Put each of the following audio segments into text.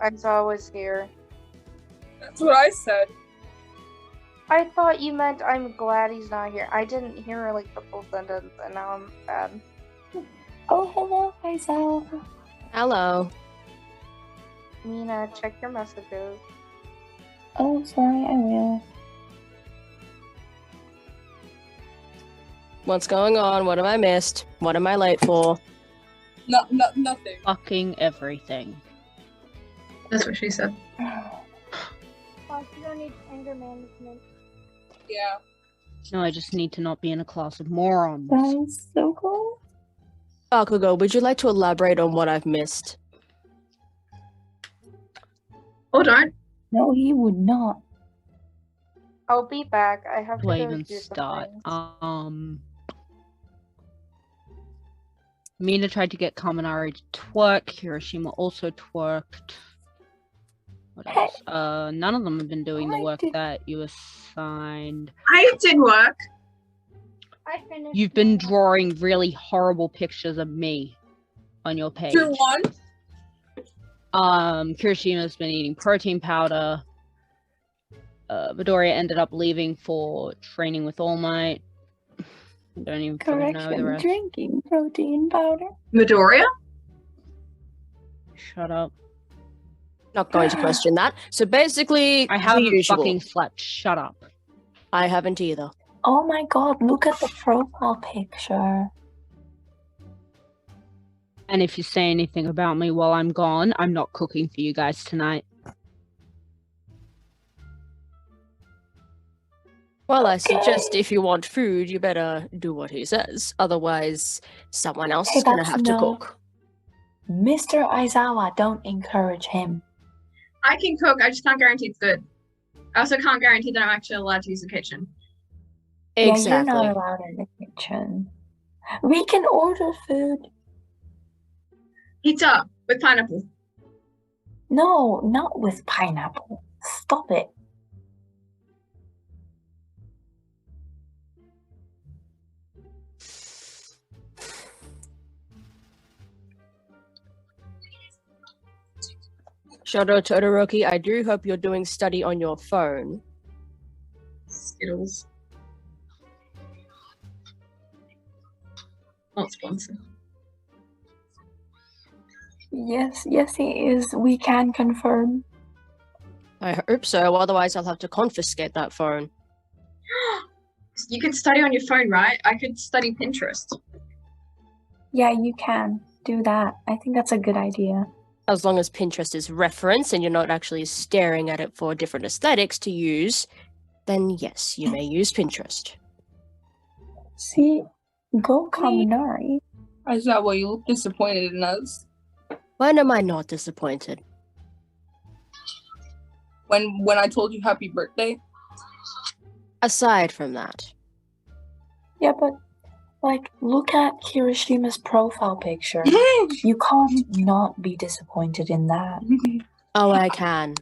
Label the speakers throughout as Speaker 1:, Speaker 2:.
Speaker 1: Exile Oh, was here.
Speaker 2: That's what I said.
Speaker 1: I thought you meant I'm glad he's not here. I didn't hear like the full sentence, and now I'm sad.
Speaker 3: Oh, hello, Isel.
Speaker 4: Hello.
Speaker 1: Mina, check your messages.
Speaker 3: Oh, sorry, I will.
Speaker 4: What's going on? What have I missed? What am I late for?
Speaker 2: No, no, nothing.
Speaker 5: Fucking everything.
Speaker 6: That's what she said.
Speaker 7: Plus, you don't need anger management.
Speaker 2: Yeah.
Speaker 5: No, I just need to not be in a class of morons.
Speaker 3: That is so cool.
Speaker 4: Bakugo, would you like to elaborate on what I've missed?
Speaker 6: Hold on.
Speaker 3: No, he would not.
Speaker 1: I'll be back. I have to
Speaker 5: Do I
Speaker 1: go
Speaker 5: even
Speaker 1: do some
Speaker 5: start?
Speaker 1: things.
Speaker 5: Um. Mina tried to get Kaminari to twerk. Hiroshima also twerked. What else? Uh, none of them have been doing the
Speaker 3: I
Speaker 5: work
Speaker 3: did-
Speaker 5: that you assigned.
Speaker 6: I did work.
Speaker 7: I finished.
Speaker 5: You've been
Speaker 7: mine.
Speaker 5: drawing really horrible pictures of me on your page.
Speaker 2: Two one.
Speaker 5: Um, Kirishima's been eating protein powder. Uh, Midoriya ended up leaving for training with All Might. Don't even fucking know the
Speaker 3: Correction.
Speaker 5: rest.
Speaker 3: Drinking protein powder.
Speaker 6: Midoriya?
Speaker 5: Shut up.
Speaker 4: Not going to question that. So basically,
Speaker 5: I
Speaker 4: the
Speaker 5: haven't
Speaker 4: usual.
Speaker 5: fucking slept. Shut up.
Speaker 4: I haven't either.
Speaker 3: Oh my god, look at the profile picture.
Speaker 5: And if you say anything about me while I'm gone, I'm not cooking for you guys tonight.
Speaker 4: Well, I suggest if you want food, you better do what he says. Otherwise, someone else
Speaker 3: Hey,
Speaker 4: is going to
Speaker 3: that's
Speaker 4: have to
Speaker 3: no-
Speaker 4: cook.
Speaker 3: Mr. Aizawa, don't encourage him.
Speaker 6: I can cook. I just can't guarantee it's good. I also can't guarantee that I'm actually allowed to use the kitchen.
Speaker 3: Yeah, you're
Speaker 4: Exactly.
Speaker 3: not allowed in the kitchen. We can order food.
Speaker 6: Pizza with pineapple.
Speaker 3: No, not with pineapple. Stop it.
Speaker 4: Shout out to Todoroki. I do hope you're doing study on your phone.
Speaker 6: Skittles. Not sponsored.
Speaker 3: Yes, yes, he is. We can confirm.
Speaker 4: I hope so. Otherwise, I'll have to confiscate that phone.
Speaker 6: you can study on your phone, right? I could study Pinterest.
Speaker 3: Yeah, you can do that. I think that's a good idea.
Speaker 4: As long as Pinterest is reference and you're not actually staring at it for different aesthetics to use, then yes, you may use Pinterest.
Speaker 3: See, go Kaminari.
Speaker 2: Is that why you look disappointed in us?
Speaker 4: When am I not disappointed?
Speaker 2: When when I told you happy birthday?
Speaker 4: Aside from that,
Speaker 3: Yeah, but like, look at Kirishima's profile picture.
Speaker 2: I
Speaker 3: You can't not be disappointed in that.
Speaker 4: oh, I can.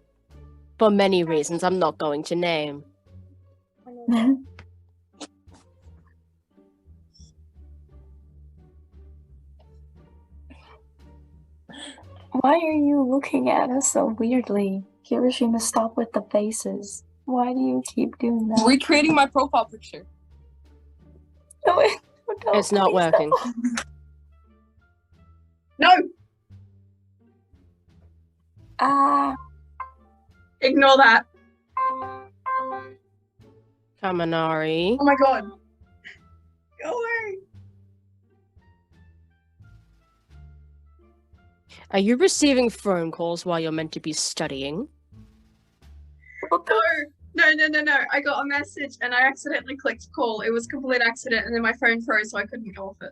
Speaker 4: For many reasons I'm not going to name.
Speaker 3: Why are you looking at us so weirdly? Kirishima, stop with the faces. Why do you keep doing that?
Speaker 2: Recreating my profile picture.
Speaker 3: No, it- no,
Speaker 4: It's not
Speaker 3: please
Speaker 4: working.
Speaker 3: don't.
Speaker 6: No,
Speaker 3: Ah,
Speaker 6: ignore that.
Speaker 4: Kaminari.
Speaker 6: Oh my god. Go away.
Speaker 4: Are you receiving phone calls while you're meant to be studying?
Speaker 3: what the-
Speaker 6: No. No, no, no, no. I got a message and I accidentally clicked call. It was a complete accident and then my phone froze so I couldn't go off it.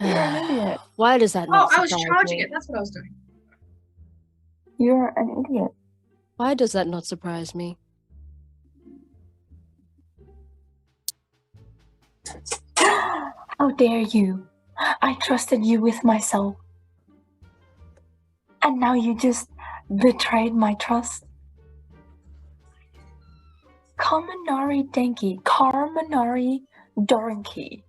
Speaker 3: you're an idiot.
Speaker 4: Why does that
Speaker 6: Oh,
Speaker 4: not
Speaker 6: I was
Speaker 4: surprise
Speaker 6: charging
Speaker 4: me?
Speaker 6: it. That's what I was doing.
Speaker 3: You're an idiot.
Speaker 4: Why does that not surprise me?
Speaker 3: How dare you? I trusted you with myself. And now you just betrayed my trust. Kaminari Denki, Karmanari Dorinki.